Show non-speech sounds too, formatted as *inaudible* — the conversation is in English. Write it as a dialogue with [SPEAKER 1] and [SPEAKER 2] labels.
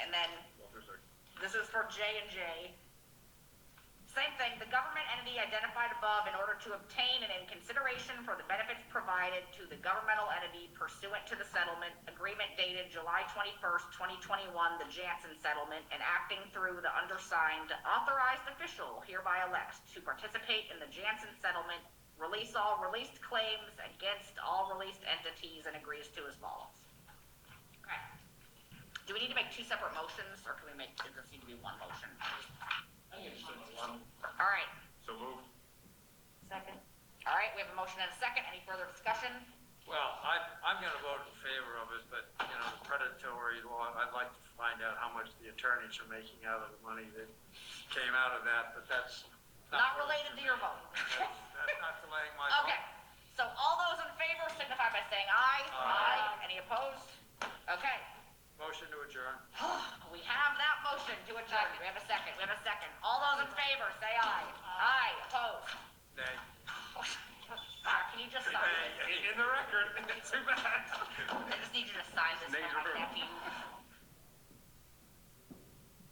[SPEAKER 1] And then, this is for J and J. Same thing, the government entity identified above in order to obtain and in consideration for the benefits provided to the governmental entity pursuant to the settlement agreement dated July twenty-first, twenty twenty-one, the Janssen settlement, and acting through the undersigned authorized official hereby elects to participate in the Janssen settlement, release all released claims against all released entities, and agrees to as follows. Okay. Do we need to make two separate motions, or can we make, does this need to be one motion? All right,
[SPEAKER 2] So moved.
[SPEAKER 3] Second.
[SPEAKER 1] all right, we have a motion and a second, any further discussion?
[SPEAKER 4] Well, I, I'm gonna vote in favor of it, but, you know, the predatory law, I'd like to find out how much the attorneys are making out of the money that came out of that, but that's.
[SPEAKER 1] Not related to your *laughs* vote.
[SPEAKER 4] That's *laughs* that's not delaying my vote.
[SPEAKER 1] Okay, so all those in favor signify by saying aye.
[SPEAKER 4] Aye.
[SPEAKER 1] Any opposed? Okay, *sighs*
[SPEAKER 4] Motion to adjourn.
[SPEAKER 1] we have that motion to adjourn, we have a second, we have a second, all those in favor, say aye. Aye, opposed? *laughs*
[SPEAKER 4] Nay.
[SPEAKER 1] Mark, can you just sign this?
[SPEAKER 4] In the record, *laughs* too bad.
[SPEAKER 1] I just need you to sign this,
[SPEAKER 2] Nays
[SPEAKER 1] for
[SPEAKER 2] are-
[SPEAKER 1] my nephew.